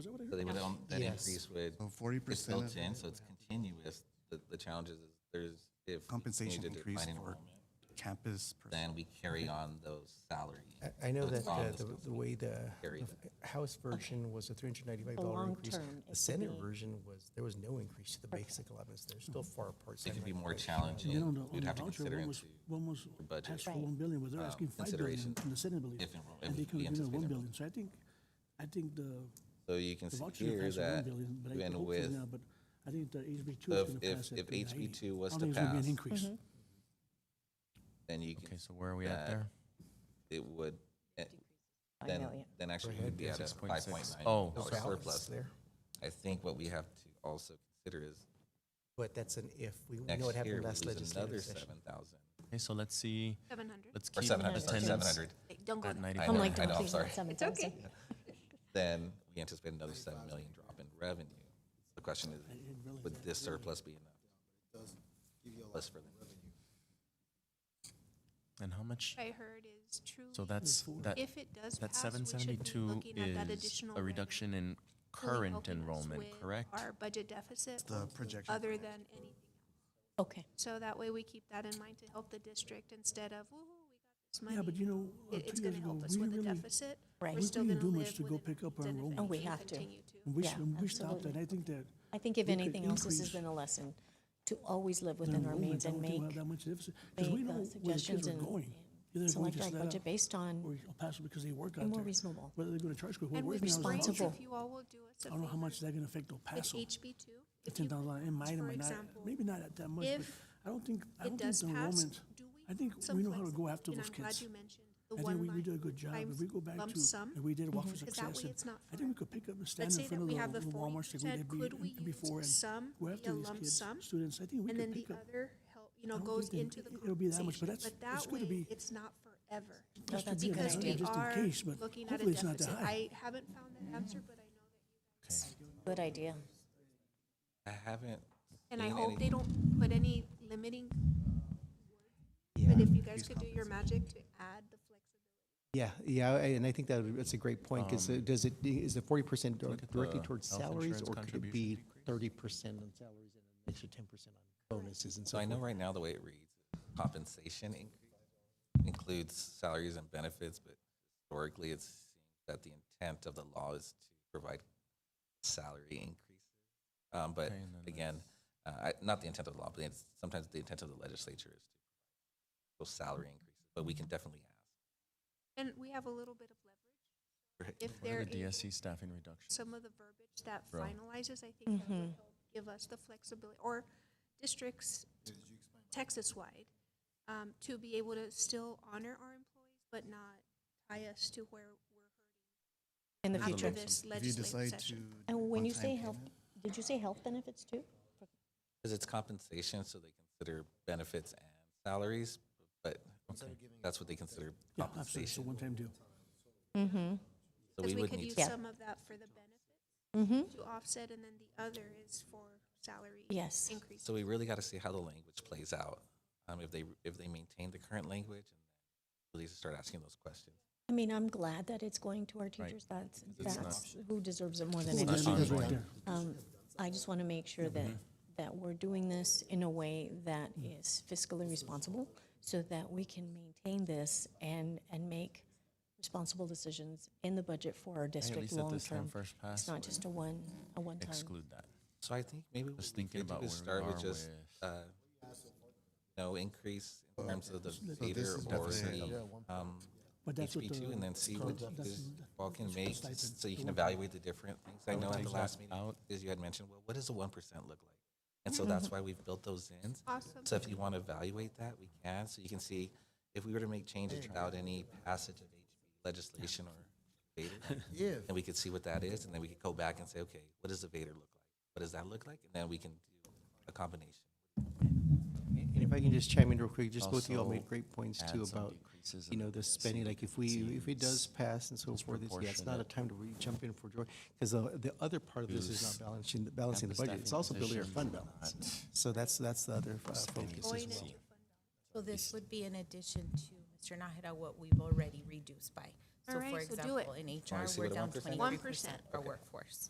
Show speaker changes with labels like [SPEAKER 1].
[SPEAKER 1] So they would, um, that
[SPEAKER 2] Yes.
[SPEAKER 1] increase would,
[SPEAKER 3] So forty
[SPEAKER 1] it's
[SPEAKER 3] percent
[SPEAKER 1] built
[SPEAKER 3] of
[SPEAKER 1] in, so it's continuous. The, the challenge is is there's, if. we continue
[SPEAKER 3] compensation
[SPEAKER 1] to
[SPEAKER 3] increase
[SPEAKER 1] decline
[SPEAKER 3] for
[SPEAKER 1] enrollment,
[SPEAKER 3] campus. per-
[SPEAKER 1] Then we carry on those salary.
[SPEAKER 2] I- I know
[SPEAKER 1] so it's
[SPEAKER 2] that uh,
[SPEAKER 1] on
[SPEAKER 2] the,
[SPEAKER 1] those
[SPEAKER 2] the way the,
[SPEAKER 1] carry
[SPEAKER 2] the House version was a three hundred ninety-five
[SPEAKER 4] The
[SPEAKER 2] dollar
[SPEAKER 4] long
[SPEAKER 2] increase.
[SPEAKER 4] term
[SPEAKER 2] The
[SPEAKER 4] is to
[SPEAKER 2] Senate
[SPEAKER 4] be-
[SPEAKER 2] version was, there was no increase to the basic allowance. They're still far apart.
[SPEAKER 1] It could be
[SPEAKER 2] Senate.
[SPEAKER 1] more
[SPEAKER 5] You know, on
[SPEAKER 1] challenging.
[SPEAKER 5] the- on
[SPEAKER 1] We'd
[SPEAKER 5] the
[SPEAKER 1] have to
[SPEAKER 5] voucher,
[SPEAKER 1] consider into
[SPEAKER 5] one was, one was
[SPEAKER 1] your budget.
[SPEAKER 5] asked for
[SPEAKER 4] Right.
[SPEAKER 5] one billion, but they're
[SPEAKER 1] uh,
[SPEAKER 5] asking five billion
[SPEAKER 1] consideration
[SPEAKER 5] in the Senate, I believe.
[SPEAKER 1] if enroll- if
[SPEAKER 5] And they
[SPEAKER 1] we
[SPEAKER 5] could give us
[SPEAKER 1] anticipate
[SPEAKER 5] one
[SPEAKER 1] enrollment.
[SPEAKER 5] billion, so I think, I think the,
[SPEAKER 1] So you can
[SPEAKER 5] the
[SPEAKER 1] see
[SPEAKER 5] voucher
[SPEAKER 1] here
[SPEAKER 5] passed at one
[SPEAKER 1] that
[SPEAKER 5] billion, but I
[SPEAKER 1] even
[SPEAKER 5] hopefully
[SPEAKER 1] with
[SPEAKER 5] now, but I think the HB two
[SPEAKER 1] So
[SPEAKER 5] is gonna
[SPEAKER 1] if-
[SPEAKER 5] pass at
[SPEAKER 1] if
[SPEAKER 5] 390.
[SPEAKER 1] HB2 was
[SPEAKER 5] I
[SPEAKER 1] to
[SPEAKER 5] don't think it's gonna be
[SPEAKER 1] pass-
[SPEAKER 5] An increase.
[SPEAKER 4] Mm-hmm.
[SPEAKER 1] then you can,
[SPEAKER 6] Okay, so where are we at
[SPEAKER 1] that
[SPEAKER 6] there?
[SPEAKER 1] it would, eh,
[SPEAKER 4] I
[SPEAKER 1] then,
[SPEAKER 4] know, yeah.
[SPEAKER 1] then actually
[SPEAKER 2] Overhead
[SPEAKER 1] we'd be at a
[SPEAKER 6] 6.6.
[SPEAKER 1] 5.9
[SPEAKER 6] Oh.
[SPEAKER 1] dollar
[SPEAKER 2] Balance
[SPEAKER 1] surplus.
[SPEAKER 2] There,
[SPEAKER 1] I think what we have to also consider is
[SPEAKER 2] but that's an if. We we know
[SPEAKER 1] next
[SPEAKER 2] what
[SPEAKER 1] year
[SPEAKER 2] happened
[SPEAKER 1] we
[SPEAKER 2] last
[SPEAKER 1] lose another
[SPEAKER 2] legislative session.
[SPEAKER 1] seven thousand.
[SPEAKER 6] Okay, so let's see,
[SPEAKER 7] Seven hundred.
[SPEAKER 6] let's
[SPEAKER 1] Or
[SPEAKER 6] keep
[SPEAKER 1] seven hundred, sorry, seven
[SPEAKER 6] attendance
[SPEAKER 1] hundred.
[SPEAKER 7] Don't go
[SPEAKER 6] at
[SPEAKER 7] there.
[SPEAKER 1] I
[SPEAKER 4] I'm
[SPEAKER 1] know,
[SPEAKER 4] like,
[SPEAKER 1] I know,
[SPEAKER 4] don't
[SPEAKER 1] I'm
[SPEAKER 4] think
[SPEAKER 1] sorry.
[SPEAKER 4] that's seven
[SPEAKER 7] It's okay.
[SPEAKER 4] thousand.
[SPEAKER 1] Then we anticipate another seven million drop in revenue. The question is, would this surplus be enough? Plus for them.
[SPEAKER 6] and how much?
[SPEAKER 7] I heard is truly,
[SPEAKER 6] So that's, that,
[SPEAKER 7] if it does
[SPEAKER 6] that
[SPEAKER 7] pass, we should be
[SPEAKER 6] 772
[SPEAKER 7] looking at that
[SPEAKER 6] is
[SPEAKER 7] additional.
[SPEAKER 6] a
[SPEAKER 7] revenue
[SPEAKER 6] reduction in
[SPEAKER 7] fully
[SPEAKER 6] current
[SPEAKER 7] helping us
[SPEAKER 6] enrollment,
[SPEAKER 7] with
[SPEAKER 6] correct?
[SPEAKER 7] Our budget deficit,
[SPEAKER 3] The projection.
[SPEAKER 7] other than anything.
[SPEAKER 4] Okay.
[SPEAKER 7] So that way we keep that in mind to help the district instead of, woo, we
[SPEAKER 5] Yeah,
[SPEAKER 7] got
[SPEAKER 5] but
[SPEAKER 7] this
[SPEAKER 5] you
[SPEAKER 7] money.
[SPEAKER 5] know, uh,
[SPEAKER 7] It- It's
[SPEAKER 5] two years
[SPEAKER 7] gonna
[SPEAKER 5] ago,
[SPEAKER 7] help us
[SPEAKER 5] we
[SPEAKER 7] with the
[SPEAKER 5] really,
[SPEAKER 7] deficit.
[SPEAKER 4] Right.
[SPEAKER 7] We're
[SPEAKER 4] We
[SPEAKER 7] still
[SPEAKER 5] didn't
[SPEAKER 7] gonna
[SPEAKER 5] do much
[SPEAKER 7] live
[SPEAKER 5] to go
[SPEAKER 7] with an
[SPEAKER 5] pick up our
[SPEAKER 7] increase and if
[SPEAKER 5] enrollment.
[SPEAKER 4] Oh, we
[SPEAKER 7] anything,
[SPEAKER 4] have to.
[SPEAKER 7] continue to.
[SPEAKER 5] and we,
[SPEAKER 4] Yeah,
[SPEAKER 5] s- and we stopped,
[SPEAKER 4] absolutely.
[SPEAKER 5] and I think that.
[SPEAKER 4] I think if
[SPEAKER 5] we could
[SPEAKER 4] anything else, this has
[SPEAKER 5] increase
[SPEAKER 4] been a lesson to always live
[SPEAKER 5] the
[SPEAKER 4] within our
[SPEAKER 5] enrollment.
[SPEAKER 4] means
[SPEAKER 5] I
[SPEAKER 4] and
[SPEAKER 5] don't think
[SPEAKER 4] make,
[SPEAKER 5] we'll have that much deficit, 'cause we
[SPEAKER 4] make, uh,
[SPEAKER 5] know where the kids
[SPEAKER 4] suggestions
[SPEAKER 5] are
[SPEAKER 4] and-
[SPEAKER 5] going. Either they're going
[SPEAKER 4] select
[SPEAKER 5] to
[SPEAKER 4] our
[SPEAKER 5] Sled
[SPEAKER 4] budget
[SPEAKER 5] Out
[SPEAKER 4] based
[SPEAKER 5] Or
[SPEAKER 4] on,
[SPEAKER 5] El Paso because they work out
[SPEAKER 4] and
[SPEAKER 5] there.
[SPEAKER 4] more reasonable.
[SPEAKER 5] Whether they're going to charter school. We're
[SPEAKER 7] And
[SPEAKER 5] working
[SPEAKER 7] with
[SPEAKER 5] on the voucher.
[SPEAKER 4] responsible.
[SPEAKER 7] If you all will do us
[SPEAKER 5] I
[SPEAKER 7] a
[SPEAKER 5] don't know how
[SPEAKER 7] favor
[SPEAKER 5] much they're going to affect El
[SPEAKER 7] with
[SPEAKER 5] Paso.
[SPEAKER 7] HB two.
[SPEAKER 5] The ten thousand dollars, it might or
[SPEAKER 7] for
[SPEAKER 5] might not,
[SPEAKER 7] example,
[SPEAKER 5] maybe not at that much, but
[SPEAKER 7] if
[SPEAKER 5] I don't think, I
[SPEAKER 7] it
[SPEAKER 5] don't think
[SPEAKER 7] does
[SPEAKER 5] the
[SPEAKER 7] pass,
[SPEAKER 5] enrollment,
[SPEAKER 7] do
[SPEAKER 5] I
[SPEAKER 7] we
[SPEAKER 5] think
[SPEAKER 7] some
[SPEAKER 5] we know how to go
[SPEAKER 7] flexibility?
[SPEAKER 5] after
[SPEAKER 7] And
[SPEAKER 5] those
[SPEAKER 7] I'm glad
[SPEAKER 5] kids.
[SPEAKER 7] you mentioned
[SPEAKER 5] I
[SPEAKER 7] the
[SPEAKER 5] think we,
[SPEAKER 7] one
[SPEAKER 5] we
[SPEAKER 7] line
[SPEAKER 5] do a good job, if
[SPEAKER 7] times
[SPEAKER 5] we go back
[SPEAKER 7] lump
[SPEAKER 5] to,
[SPEAKER 7] sum.
[SPEAKER 5] if we did Walk for
[SPEAKER 7] Because that
[SPEAKER 5] Success,
[SPEAKER 7] way
[SPEAKER 5] and
[SPEAKER 7] it's not
[SPEAKER 5] I think
[SPEAKER 7] fair.
[SPEAKER 5] we could pick up and stand
[SPEAKER 7] Let's
[SPEAKER 5] in
[SPEAKER 7] say that
[SPEAKER 5] front of
[SPEAKER 7] we have
[SPEAKER 5] the
[SPEAKER 7] the
[SPEAKER 5] the
[SPEAKER 7] forty
[SPEAKER 5] Walmart like we
[SPEAKER 7] percent,
[SPEAKER 5] did be-
[SPEAKER 7] could we
[SPEAKER 5] be- before, and
[SPEAKER 7] use some
[SPEAKER 5] go
[SPEAKER 7] be a
[SPEAKER 5] after these
[SPEAKER 7] lump
[SPEAKER 5] kids,
[SPEAKER 7] sum?
[SPEAKER 5] students, I think we
[SPEAKER 7] And then
[SPEAKER 5] could
[SPEAKER 7] the
[SPEAKER 5] pick up.
[SPEAKER 7] other help, you know,
[SPEAKER 5] I don't
[SPEAKER 7] goes
[SPEAKER 5] think that
[SPEAKER 7] into the
[SPEAKER 5] it- it'll be that much, but
[SPEAKER 7] compensation,
[SPEAKER 5] that's-
[SPEAKER 7] but that
[SPEAKER 5] it's gonna
[SPEAKER 7] way,
[SPEAKER 5] be-
[SPEAKER 7] it's not forever.
[SPEAKER 4] No,
[SPEAKER 5] just to
[SPEAKER 4] that's
[SPEAKER 5] be an
[SPEAKER 4] good
[SPEAKER 7] Because
[SPEAKER 5] idea,
[SPEAKER 7] we
[SPEAKER 5] just in
[SPEAKER 7] are
[SPEAKER 5] case, but
[SPEAKER 7] looking at a
[SPEAKER 5] hopefully it's not that
[SPEAKER 7] deficit.
[SPEAKER 5] high.
[SPEAKER 7] I haven't found that answer, but I know that,
[SPEAKER 4] good idea.
[SPEAKER 1] I haven't.
[SPEAKER 7] and I
[SPEAKER 1] seen
[SPEAKER 7] hope
[SPEAKER 1] any-
[SPEAKER 7] they don't put any limiting,
[SPEAKER 2] Yeah.
[SPEAKER 7] but if you guys could do your magic to add the flexibility.
[SPEAKER 2] Yeah, yeah, I- and I think that, would- that's a great point, because
[SPEAKER 1] Um,
[SPEAKER 2] does it, is the forty percent
[SPEAKER 6] look at
[SPEAKER 2] directly
[SPEAKER 6] the
[SPEAKER 2] towards
[SPEAKER 6] health
[SPEAKER 2] salaries,
[SPEAKER 6] insurance
[SPEAKER 2] or could it
[SPEAKER 6] contribution
[SPEAKER 2] be
[SPEAKER 6] decrease?
[SPEAKER 2] thirty percent on salaries and an extra ten percent on bonuses and so
[SPEAKER 1] So I
[SPEAKER 2] forth?
[SPEAKER 1] know right now the way it reads, compensation increase includes salaries and benefits, but historically it's that the intent of the law is to provide salary increases. Um, but
[SPEAKER 6] Okay, and then
[SPEAKER 1] again, uh, I, not the intent of the law, but it's sometimes the intent of the legislature is to those salary increases, but we can definitely ask.
[SPEAKER 7] And we have a little bit of leverage.
[SPEAKER 1] Right.
[SPEAKER 7] If
[SPEAKER 6] What are
[SPEAKER 7] there
[SPEAKER 6] the
[SPEAKER 7] is
[SPEAKER 6] DSC staffing reductions?
[SPEAKER 7] some of the verbiage that
[SPEAKER 6] Bro.
[SPEAKER 7] finalizes, I think that
[SPEAKER 4] Mm-hmm.
[SPEAKER 7] would help give us the flexibility, or districts Texas-wide, um, to be able to still honor our employees, but not tie us to where we're
[SPEAKER 4] In the
[SPEAKER 6] There's a
[SPEAKER 7] hurting after
[SPEAKER 4] future.
[SPEAKER 6] lump sum.
[SPEAKER 7] this
[SPEAKER 3] If you
[SPEAKER 7] legislative
[SPEAKER 3] decide to.
[SPEAKER 7] session.
[SPEAKER 3] do
[SPEAKER 4] And when you
[SPEAKER 3] one-time
[SPEAKER 4] say health,
[SPEAKER 3] payment,
[SPEAKER 4] did you say health benefits too?
[SPEAKER 1] Because it's compensation, so they consider benefits and salaries, but that's what they consider
[SPEAKER 5] Yeah, absolutely, it's a
[SPEAKER 1] compensation.
[SPEAKER 5] one-time deal.
[SPEAKER 4] Mm-hmm.
[SPEAKER 1] So
[SPEAKER 7] Because
[SPEAKER 1] we
[SPEAKER 7] we
[SPEAKER 1] would
[SPEAKER 7] could
[SPEAKER 1] need
[SPEAKER 7] use
[SPEAKER 1] to
[SPEAKER 4] Yeah.
[SPEAKER 7] some of that for the benefits
[SPEAKER 4] Mm-hmm.
[SPEAKER 7] to offset, and then the other is for salary
[SPEAKER 4] Yes.
[SPEAKER 7] increase.
[SPEAKER 1] So we really got to see how the language plays out. Um, if they if they maintain the current language, and really start asking those questions.
[SPEAKER 4] I mean, I'm glad that it's going to our teachers. That's,
[SPEAKER 6] It's not-
[SPEAKER 4] that's who deserves it more than
[SPEAKER 6] It's not
[SPEAKER 4] anyone.
[SPEAKER 5] Because right
[SPEAKER 6] ongoing.
[SPEAKER 5] there.
[SPEAKER 4] Um, I just want to make sure that,
[SPEAKER 6] Mm-hmm.
[SPEAKER 4] that we're doing this in a way that is fiscally responsible so that we can maintain this and, and make responsible decisions in the budget for our
[SPEAKER 6] Hey, At
[SPEAKER 4] district
[SPEAKER 6] least at
[SPEAKER 4] long
[SPEAKER 6] this time,
[SPEAKER 4] term.
[SPEAKER 6] first
[SPEAKER 4] It's
[SPEAKER 6] pass,
[SPEAKER 4] not just a one, a one time.
[SPEAKER 6] exclude that.
[SPEAKER 1] So I think maybe
[SPEAKER 6] Just
[SPEAKER 1] what we
[SPEAKER 6] thinking
[SPEAKER 1] could do
[SPEAKER 6] about
[SPEAKER 1] is
[SPEAKER 6] where we
[SPEAKER 1] start
[SPEAKER 6] are
[SPEAKER 1] with just
[SPEAKER 6] with-
[SPEAKER 1] uh, no increase in terms of the
[SPEAKER 3] this
[SPEAKER 1] theater
[SPEAKER 3] is
[SPEAKER 1] or
[SPEAKER 6] deficit.
[SPEAKER 1] the um,
[SPEAKER 5] But that's what
[SPEAKER 1] HB two,
[SPEAKER 5] the-
[SPEAKER 1] and then see
[SPEAKER 5] the-
[SPEAKER 1] what you
[SPEAKER 5] that's-
[SPEAKER 1] guys
[SPEAKER 5] that's-
[SPEAKER 1] all can
[SPEAKER 5] that's
[SPEAKER 1] make,
[SPEAKER 5] stipend.
[SPEAKER 1] so you can evaluate the different things. I know at
[SPEAKER 6] take
[SPEAKER 1] the
[SPEAKER 6] that
[SPEAKER 1] last meeting,
[SPEAKER 6] out.
[SPEAKER 1] is you had mentioned, well, what does the one percent look like? And so that's why we've built those in.
[SPEAKER 7] Awesome.
[SPEAKER 1] So if you want to evaluate that, we can, so you can see if we were to make changes without any passage of HB legislation or Vader, and we could see what that is, and then we could go back and say, okay, what does the Vader look like? What does that look like? And then we can do a combination.
[SPEAKER 2] And if I can just chime in real quick, just both of you all
[SPEAKER 6] Also
[SPEAKER 2] made great points too
[SPEAKER 6] add some
[SPEAKER 2] about,
[SPEAKER 6] decreases
[SPEAKER 2] you
[SPEAKER 6] in
[SPEAKER 2] know,
[SPEAKER 6] the
[SPEAKER 2] the spending, like if we, if it does pass and so forth, it's, yeah, it's not a
[SPEAKER 6] disproportionate
[SPEAKER 2] time to really jump in for joy. Because the, the other part of this is not balancing, balancing the
[SPEAKER 6] campus
[SPEAKER 2] budget, it's
[SPEAKER 6] staffing
[SPEAKER 2] also building our
[SPEAKER 6] positions
[SPEAKER 2] fund
[SPEAKER 6] and
[SPEAKER 2] balance.
[SPEAKER 6] not
[SPEAKER 2] So that's, that's the other uh, focus as
[SPEAKER 7] Going
[SPEAKER 2] well.
[SPEAKER 7] into
[SPEAKER 8] So this would be in addition to, Mr. Nahida, what we've already reduced by.
[SPEAKER 7] All
[SPEAKER 8] So
[SPEAKER 7] right,
[SPEAKER 8] for
[SPEAKER 7] so do it.
[SPEAKER 8] example, in HR,
[SPEAKER 1] see
[SPEAKER 8] we're
[SPEAKER 1] what a
[SPEAKER 8] down
[SPEAKER 1] 1% is?
[SPEAKER 8] twenty-three percent
[SPEAKER 7] 1%.
[SPEAKER 8] our workforce.